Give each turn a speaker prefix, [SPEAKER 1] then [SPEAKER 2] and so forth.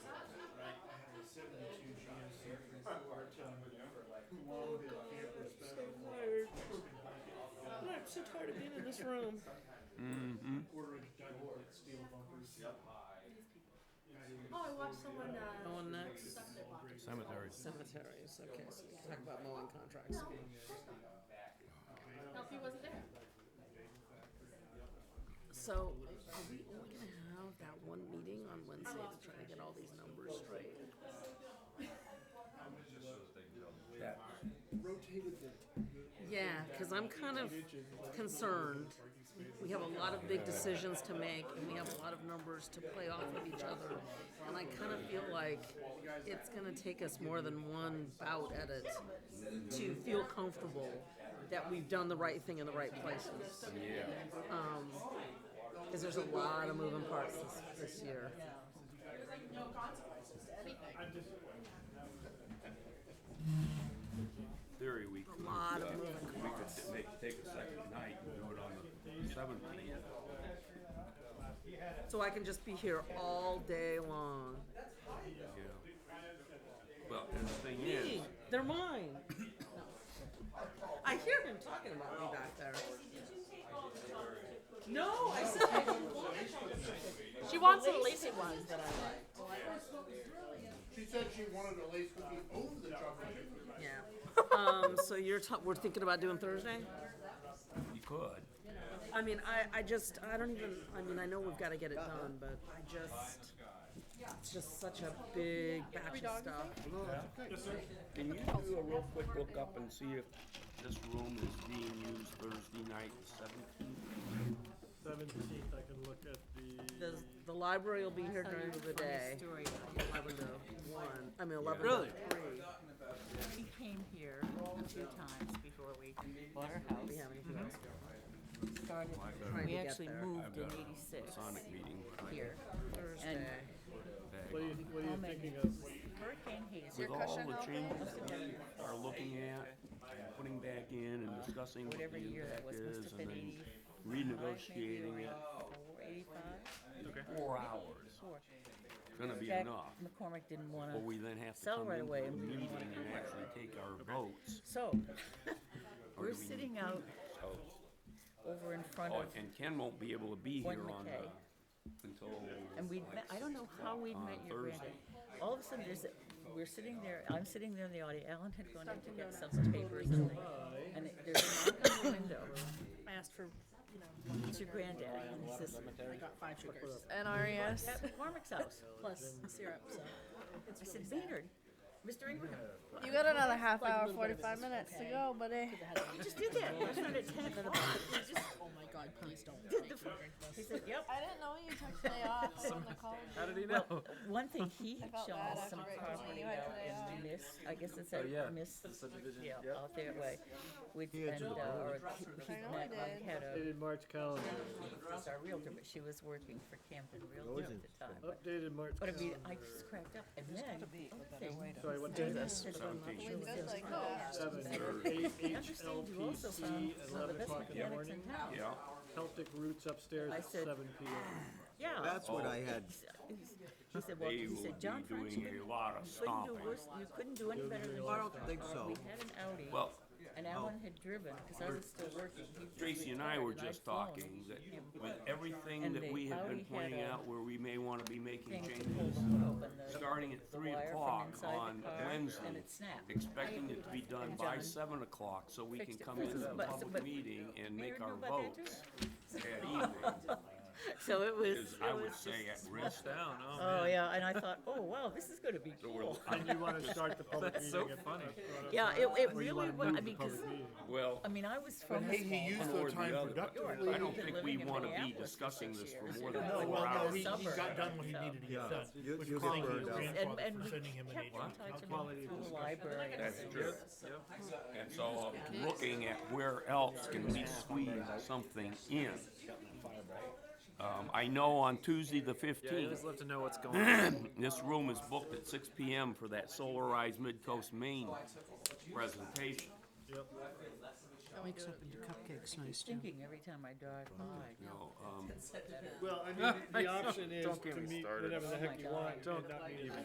[SPEAKER 1] so tired of being in this room.
[SPEAKER 2] Order a giant steel bumpers.
[SPEAKER 3] Oh, I watched someone, uh.
[SPEAKER 1] Go on next.
[SPEAKER 3] suck their block.
[SPEAKER 4] Cemeteries.
[SPEAKER 1] Cemeteries. Okay, so let's talk about mowing contracts.
[SPEAKER 3] No, of course not. No, he wasn't there.
[SPEAKER 1] So, are we only gonna have that one meeting on Wednesday to try to get all these numbers straight?
[SPEAKER 4] Yeah.
[SPEAKER 2] Rotated the
[SPEAKER 1] Yeah, because I'm kind of concerned. We have a lot of big decisions to make, and we have a lot of numbers to play off of each other. And I kind of feel like it's gonna take us more than one bout at it to feel comfortable that we've done the right thing in the right places.
[SPEAKER 4] Yeah.
[SPEAKER 1] Because there's a lot of moving parts this, this year.
[SPEAKER 4] Theory, we could,
[SPEAKER 1] lot of
[SPEAKER 4] uh, we could make, take a second night and do it on the seventeenth.
[SPEAKER 1] So I can just be here all day long.
[SPEAKER 4] Yeah. Well, and the thing is,
[SPEAKER 1] Me, they're mine. I hear him talking about me back there. No, I said I don't want
[SPEAKER 3] She wants the lacy ones that I.
[SPEAKER 5] She said she wanted a lace cookie over the chocolate chip cookie.
[SPEAKER 1] Yeah. Um, so you're ta- we're thinking about doing Thursday?
[SPEAKER 4] you could.
[SPEAKER 1] I mean, I, I just, I don't even, I mean, I know we've got to get it done, but I just, it's just such a big batch of stuff.
[SPEAKER 4] Can you do a real quick look up and see if this room is being used Thursday night, the seventeenth?
[SPEAKER 2] seventeenth, I can look at the,
[SPEAKER 1] The, the library will be here during the day.
[SPEAKER 6] story.
[SPEAKER 1] Eleven to one, I mean, eleven
[SPEAKER 4] Really?
[SPEAKER 1] to three.
[SPEAKER 6] She came here a few times before we bought our house.
[SPEAKER 1] We have
[SPEAKER 6] Mm-hmm.
[SPEAKER 1] anything else?
[SPEAKER 6] Started-
[SPEAKER 1] Trying to
[SPEAKER 6] We
[SPEAKER 1] get
[SPEAKER 6] actually
[SPEAKER 1] there.
[SPEAKER 6] moved in
[SPEAKER 4] got a
[SPEAKER 6] eighty-six
[SPEAKER 4] Sonic meeting, but I
[SPEAKER 6] here.
[SPEAKER 1] Thursday.
[SPEAKER 2] what are you, what are you thinking of?
[SPEAKER 6] Hurricane Hazel.
[SPEAKER 4] with all the changes that we are looking at, and putting back in and discussing what
[SPEAKER 6] Whatever
[SPEAKER 4] the
[SPEAKER 6] year that
[SPEAKER 4] impact
[SPEAKER 6] was, must
[SPEAKER 4] is
[SPEAKER 6] have
[SPEAKER 4] and
[SPEAKER 6] been
[SPEAKER 4] then
[SPEAKER 6] eighty-five,
[SPEAKER 4] renegotiating it.
[SPEAKER 6] Eighty-five,
[SPEAKER 4] Four hours,
[SPEAKER 6] four.
[SPEAKER 4] gonna be
[SPEAKER 6] Jack
[SPEAKER 4] enough.
[SPEAKER 6] McCormick didn't
[SPEAKER 4] But we
[SPEAKER 6] wanna,
[SPEAKER 4] then have to
[SPEAKER 6] Sell
[SPEAKER 4] come
[SPEAKER 6] right
[SPEAKER 4] into
[SPEAKER 6] away.
[SPEAKER 4] a meeting and actually take our votes. or
[SPEAKER 6] so, we're
[SPEAKER 4] do we-
[SPEAKER 6] sitting out
[SPEAKER 4] so-
[SPEAKER 6] over in front
[SPEAKER 4] Oh,
[SPEAKER 6] of,
[SPEAKER 4] and Ken won't be able to be
[SPEAKER 6] Gordon
[SPEAKER 4] here on the,
[SPEAKER 6] McKay.
[SPEAKER 4] until.
[SPEAKER 6] and we, met I don't know how we met
[SPEAKER 4] on
[SPEAKER 6] your granddad.
[SPEAKER 4] Thursday.
[SPEAKER 6] All of a sudden, there's, a- we're sitting there, I'm sitting there in the audience, Alan had gone in to get some papers and they- and it- there's a knock on the window.
[SPEAKER 3] I asked for,
[SPEAKER 6] It's your granddaddy and he says,
[SPEAKER 3] I got five sugars.
[SPEAKER 6] At
[SPEAKER 7] NRES.
[SPEAKER 6] McCormick's house.
[SPEAKER 3] Plus syrup, so.
[SPEAKER 6] I said, Maynard, Mr. Ingraham,
[SPEAKER 7] You got another half hour, 45 minutes to go, buddy.
[SPEAKER 6] you just did that. It was around at ten o'clock. We just
[SPEAKER 3] Oh my god, please don't.
[SPEAKER 6] did the. He said, yep.
[SPEAKER 7] I didn't know you took today off from the college.
[SPEAKER 8] How did he know?
[SPEAKER 6] One thing, he had
[SPEAKER 7] felt
[SPEAKER 6] shown
[SPEAKER 7] bad
[SPEAKER 6] us some
[SPEAKER 7] after I told
[SPEAKER 6] property
[SPEAKER 7] you
[SPEAKER 6] out
[SPEAKER 7] I had today
[SPEAKER 6] in
[SPEAKER 7] off.
[SPEAKER 6] Miss, I guess it's
[SPEAKER 8] Oh, yeah,
[SPEAKER 6] a Miss.
[SPEAKER 8] the subdivision,
[SPEAKER 6] Yeah,
[SPEAKER 8] yeah.
[SPEAKER 6] out there way. With, and, uh, or he
[SPEAKER 7] I know
[SPEAKER 6] met, I
[SPEAKER 7] I did.
[SPEAKER 6] had a,
[SPEAKER 2] Updated March calendar,
[SPEAKER 6] was our realtor, but she was working for Camden Realty at the time.
[SPEAKER 4] Oh.
[SPEAKER 6] But-
[SPEAKER 2] updated March
[SPEAKER 6] But I mean,
[SPEAKER 2] calendar.
[SPEAKER 6] I just cracked up and then, other thing,
[SPEAKER 2] Sorry, what day is it?
[SPEAKER 7] We
[SPEAKER 4] Seventeenth.
[SPEAKER 7] did like oh, that.
[SPEAKER 2] Seven, eight,
[SPEAKER 6] understand you also found
[SPEAKER 2] HLPC,
[SPEAKER 6] some of the
[SPEAKER 2] eleven
[SPEAKER 6] best
[SPEAKER 2] o'clock in the
[SPEAKER 6] mechanics in
[SPEAKER 2] morning.
[SPEAKER 6] town.
[SPEAKER 4] Yeah,
[SPEAKER 2] Celtic Roots upstairs
[SPEAKER 6] I
[SPEAKER 2] at
[SPEAKER 6] said-
[SPEAKER 2] seven P M.
[SPEAKER 6] Yeah.
[SPEAKER 8] That's what I had.
[SPEAKER 6] He said, well,
[SPEAKER 4] they
[SPEAKER 6] he
[SPEAKER 4] will
[SPEAKER 6] said, John
[SPEAKER 4] be
[SPEAKER 6] French, you
[SPEAKER 4] doing a
[SPEAKER 6] couldn't,
[SPEAKER 4] lot of
[SPEAKER 6] couldn't do
[SPEAKER 4] stomping.
[SPEAKER 6] worse, you couldn't do any better than.
[SPEAKER 8] I don't think so.
[SPEAKER 6] We had an Audi.
[SPEAKER 4] Well,
[SPEAKER 6] And Alan had driven, because I was still working. He was
[SPEAKER 4] Tracy and I were
[SPEAKER 6] retired, I'd
[SPEAKER 4] just
[SPEAKER 6] flown.
[SPEAKER 4] talking that with everything
[SPEAKER 6] And
[SPEAKER 4] that
[SPEAKER 6] they
[SPEAKER 4] we have
[SPEAKER 6] already
[SPEAKER 4] been
[SPEAKER 6] had
[SPEAKER 4] pointing
[SPEAKER 6] a
[SPEAKER 4] out where we may wanna be making
[SPEAKER 6] Thing to
[SPEAKER 4] changes.
[SPEAKER 6] pull them open, the-
[SPEAKER 4] starting at
[SPEAKER 6] the
[SPEAKER 4] three
[SPEAKER 6] wire from
[SPEAKER 4] o'clock
[SPEAKER 6] inside the
[SPEAKER 4] on
[SPEAKER 6] car, And
[SPEAKER 4] Wednesday,
[SPEAKER 6] it snapped.
[SPEAKER 4] expecting it to be done by
[SPEAKER 6] John
[SPEAKER 4] seven o'clock, so we can
[SPEAKER 6] fixed it
[SPEAKER 4] come
[SPEAKER 6] for
[SPEAKER 4] into
[SPEAKER 6] us.
[SPEAKER 4] the
[SPEAKER 6] But-
[SPEAKER 4] public
[SPEAKER 6] but-
[SPEAKER 4] meeting and
[SPEAKER 6] Mayor
[SPEAKER 4] make
[SPEAKER 6] knew
[SPEAKER 4] our
[SPEAKER 6] about that,
[SPEAKER 4] votes that evening,
[SPEAKER 6] So it was,
[SPEAKER 4] is, I
[SPEAKER 6] it
[SPEAKER 4] would
[SPEAKER 6] was
[SPEAKER 4] say, at
[SPEAKER 6] just.
[SPEAKER 4] risk.
[SPEAKER 8] Down, oh
[SPEAKER 6] Oh,
[SPEAKER 8] man.
[SPEAKER 6] yeah, and I thought, oh, wow, this is gonna be
[SPEAKER 4] So we're-
[SPEAKER 6] cool.
[SPEAKER 2] And you wanna start the public meeting
[SPEAKER 8] That's
[SPEAKER 2] at.
[SPEAKER 8] so funny.
[SPEAKER 6] Yeah, it, it
[SPEAKER 2] Or you
[SPEAKER 6] really
[SPEAKER 2] wanna
[SPEAKER 6] was,
[SPEAKER 2] move
[SPEAKER 6] I
[SPEAKER 2] the
[SPEAKER 6] mean, 'cause-
[SPEAKER 2] public meeting.
[SPEAKER 4] Well,
[SPEAKER 6] I mean, I was from.
[SPEAKER 5] But hey, he
[SPEAKER 6] small-
[SPEAKER 5] used
[SPEAKER 4] or
[SPEAKER 5] the
[SPEAKER 4] the
[SPEAKER 5] time
[SPEAKER 4] other, but
[SPEAKER 5] productively.
[SPEAKER 4] I don't think we
[SPEAKER 6] Living in
[SPEAKER 4] wanna be
[SPEAKER 6] Minneapolis for
[SPEAKER 4] discussing
[SPEAKER 6] six
[SPEAKER 4] this for
[SPEAKER 6] years.
[SPEAKER 4] more
[SPEAKER 2] Oh,
[SPEAKER 6] No,
[SPEAKER 4] than
[SPEAKER 6] well,
[SPEAKER 4] four
[SPEAKER 6] no,
[SPEAKER 4] hours.
[SPEAKER 6] he- he got done
[SPEAKER 5] what he needed to get done.
[SPEAKER 8] You- which you was get thanking burned his out.
[SPEAKER 6] And, and we kept in touch and through the library.
[SPEAKER 4] That's true.
[SPEAKER 8] Yep.
[SPEAKER 4] And so
[SPEAKER 6] uh,
[SPEAKER 4] I'm looking at where else can we squeeze something in. Um, I know on Tuesday, the
[SPEAKER 8] Yeah, you always
[SPEAKER 4] fifteenth,
[SPEAKER 8] love to know what's going on.
[SPEAKER 4] This room is booked at six P M for that Solarized Midcoast Maine presentation.
[SPEAKER 1] Mix up into cupcakes, nice too.
[SPEAKER 6] Thinking every time I drive by.
[SPEAKER 4] You know, um,
[SPEAKER 2] Well, I mean, the option is
[SPEAKER 8] Don't get
[SPEAKER 2] to
[SPEAKER 8] me
[SPEAKER 2] meet
[SPEAKER 8] started.
[SPEAKER 2] whenever the
[SPEAKER 6] Oh my
[SPEAKER 2] heck you
[SPEAKER 6] God.
[SPEAKER 2] want, and
[SPEAKER 8] Don't-
[SPEAKER 2] not meet.